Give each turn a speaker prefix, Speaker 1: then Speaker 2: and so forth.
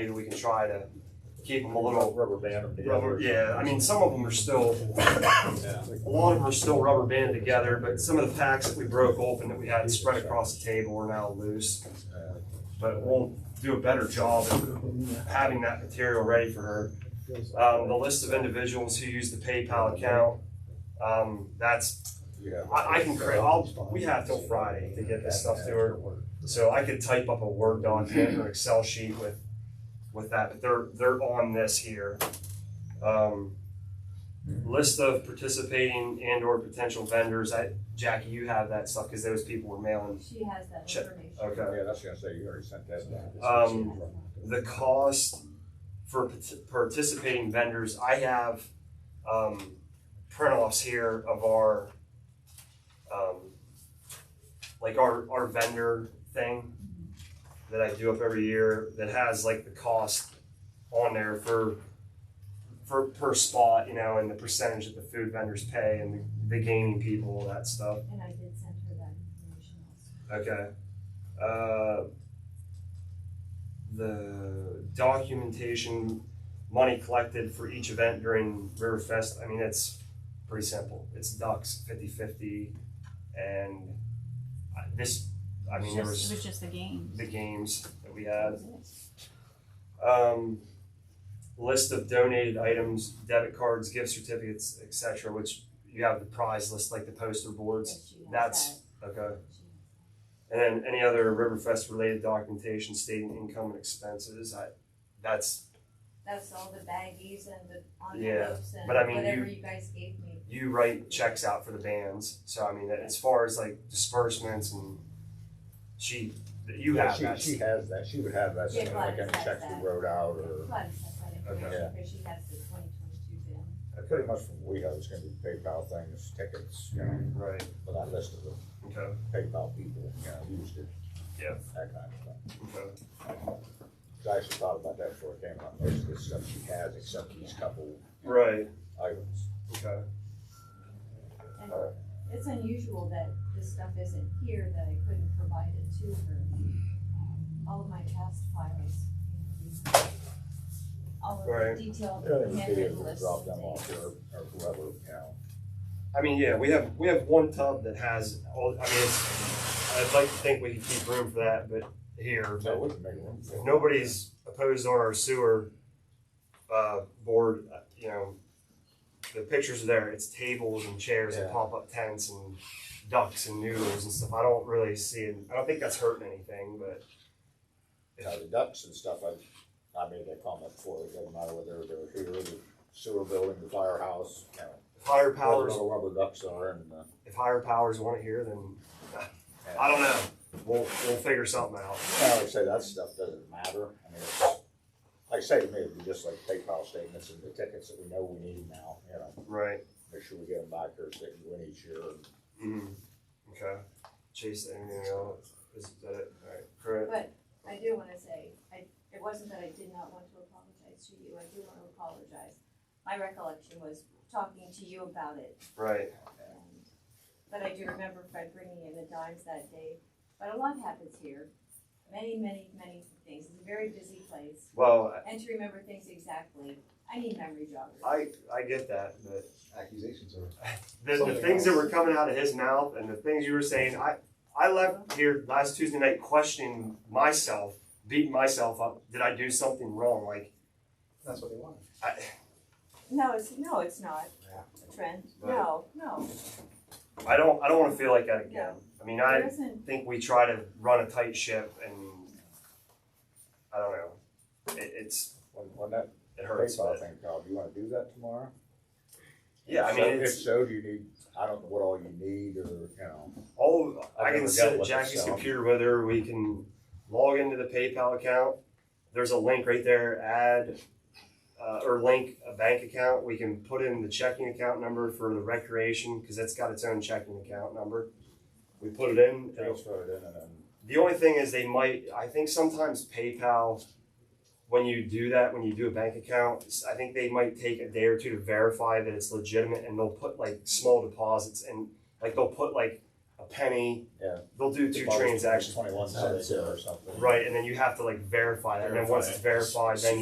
Speaker 1: maybe we can try to keep them a
Speaker 2: A little
Speaker 1: little
Speaker 2: rubber band them together.
Speaker 1: rubber, yeah, I mean, some of them are still,
Speaker 2: Yeah.
Speaker 1: a lot of them are still rubber banded together, but some of the packs that we broke open that we had spread across the table are now loose. But we'll do a better job of having that material ready for her. Um, the list of individuals who use the PayPal account, um, that's,
Speaker 2: Yeah.
Speaker 1: I, I can create, I'll, we have till Friday to get this stuff to her. So I could type up a Word document or Excel sheet with, with that, but they're, they're on this here. Um, List of participating and or potential vendors, I, Jackie, you have that stuff, cause those people were mailing,
Speaker 3: She has that
Speaker 1: Check.
Speaker 3: information.
Speaker 1: okay.
Speaker 2: Yeah, that's gonna say, you already sent that down.
Speaker 1: Um, The cost for pat- participating vendors, I have, um, print-offs here of our, um, like our, our vendor thing that I do up every year that has like the cost on there for, for per spot, you know, and the percentage that the food vendors pay and the, the gaming people, all that stuff.
Speaker 3: And I did send her that information also.
Speaker 1: Okay. Uh, The documentation, money collected for each event during Riverfest. I mean, it's pretty simple. It's ducks, 50-50, and I- this, I mean, there
Speaker 4: It was
Speaker 1: was
Speaker 4: just- it was just the game.
Speaker 1: the games that we had. Um, list of donated items, debit cards, gift certificates, et cetera, which you have the prize list, like the poster boards.
Speaker 3: But she has
Speaker 1: That's,
Speaker 3: that.
Speaker 1: okay.
Speaker 3: She has-
Speaker 1: And then any other Riverfest related documentation stating income and expenses, I, that's,
Speaker 3: That's all the baggies and the envelopes and
Speaker 1: but I mean, you-
Speaker 3: whatever you guys gave me.
Speaker 1: you write checks out for the bands, so I mean, as far as like disbursements and she, you
Speaker 2: Yeah,
Speaker 1: have
Speaker 2: she,
Speaker 1: that.
Speaker 2: she has that, she would have that,
Speaker 3: Yeah,
Speaker 2: something like
Speaker 3: Gladys
Speaker 2: any
Speaker 3: has
Speaker 2: checks
Speaker 3: that.
Speaker 2: we wrote out or,
Speaker 3: Plus, that's that
Speaker 2: Okay.
Speaker 3: information, because she has the twenty twenty-two bill.
Speaker 2: pretty much from what we have, it's gonna be PayPal things, tickets, you know,
Speaker 1: Right,
Speaker 2: but I listed the
Speaker 1: okay,
Speaker 2: PayPal people, you know, used it.
Speaker 1: Yeah.
Speaker 2: That kind of stuff.
Speaker 1: okay.
Speaker 2: I actually thought about that before it came up, most of the stuff she has, except these couple
Speaker 1: Right,
Speaker 2: items.
Speaker 1: okay.
Speaker 3: And
Speaker 2: Alright.
Speaker 3: it's unusual that this stuff isn't here, that I couldn't provide it to her. Um, All of my past files, you know, these- all
Speaker 1: Right.
Speaker 3: of the detailed
Speaker 2: Yeah, it would be
Speaker 3: handwritten
Speaker 2: able to
Speaker 3: lists
Speaker 2: drop them
Speaker 3: and
Speaker 2: off
Speaker 3: things.
Speaker 2: or, or whoever, you know.
Speaker 1: I mean, yeah, we have, we have one tub that has all, I mean, it's, I'd like to think we can keep room for that, but here,
Speaker 2: So
Speaker 1: but
Speaker 2: it would make room for it.
Speaker 1: if nobody's opposed on our sewer uh, board, uh, you know, the pictures are there, it's tables and chairs and
Speaker 2: Yeah.
Speaker 1: pop-up tents and ducks and noodles and stuff, I don't really see it, I don't think that's hurting anything, but
Speaker 2: Now, the ducks and stuff, I, I made that comment before, it doesn't matter whether they're here, the sewer building, the firehouse, you know.
Speaker 1: if higher
Speaker 2: Whether
Speaker 1: powers,
Speaker 2: the rubber ducks are and, uh,
Speaker 1: if higher powers want it here, then,
Speaker 2: and-
Speaker 1: I don't know, we'll, we'll figure something out.
Speaker 2: I always say that stuff doesn't matter, I mean, it's, like I say to me, it'd be just like PayPal statements and the tickets that we know we need now, you know.
Speaker 1: Right.
Speaker 2: Make sure we get them back here, so they can win each year, and
Speaker 1: Mm, okay, Chase, anything else, is that it, alright, correct,
Speaker 3: But I do wanna say, I, it wasn't that I did not want to apologize to you, I do wanna apologize. My recollection was talking to you about it,
Speaker 1: right,
Speaker 3: and, but I do remember Fred bringing in the dimes that day. But a lot happens here, many, many, many things, it's a very busy place,
Speaker 1: well,
Speaker 3: and to remember things exactly, I need memory joggers.
Speaker 1: I, I get that, but
Speaker 5: accusations are.
Speaker 1: the, the
Speaker 5: Something
Speaker 1: things that
Speaker 5: else.
Speaker 1: were coming out of his mouth and the things you were saying, I, I left here last Tuesday night questioning myself, beating myself up. Did I do something wrong? Like,
Speaker 5: That's what they want.
Speaker 1: I,
Speaker 3: No, it's, no, it's not, Trent, no, no,
Speaker 1: I don't, I don't want to feel like that again. I mean,
Speaker 3: there
Speaker 1: I
Speaker 3: isn't,
Speaker 1: think we try to run a tight ship, and I don't know. It, it's
Speaker 2: when, when that
Speaker 1: it hurts.
Speaker 2: PayPal
Speaker 1: But
Speaker 2: thing, Kyle, do you wanna do that tomorrow?
Speaker 1: yeah, I
Speaker 2: So-
Speaker 1: mean,
Speaker 2: If
Speaker 1: it's
Speaker 2: so, do you need, I don't know what all you need or, you know,
Speaker 1: all. I
Speaker 2: I've
Speaker 1: can
Speaker 2: never
Speaker 1: sit
Speaker 2: dealt
Speaker 1: at
Speaker 2: with it,
Speaker 1: Jackie's
Speaker 2: so.
Speaker 1: computer with her. We can log into the PayPal account. There's a link right there. Add uh, or link a bank account. We can put in the checking account number for the recreation because it's got its own checking account number. We put it in. it'll-
Speaker 2: transfer it in and then.
Speaker 1: The only thing is they might. I think sometimes PayPal, when you do that, when you do a bank account, s- I think they might take a day or two to verify that it's legitimate, and they'll put like small deposits and like they'll put like a penny.
Speaker 2: Yeah.
Speaker 1: They'll do two transactions.
Speaker 2: Twenty-one cents or something.
Speaker 1: Right, and then you have to like verify that, and then once it's verified, then you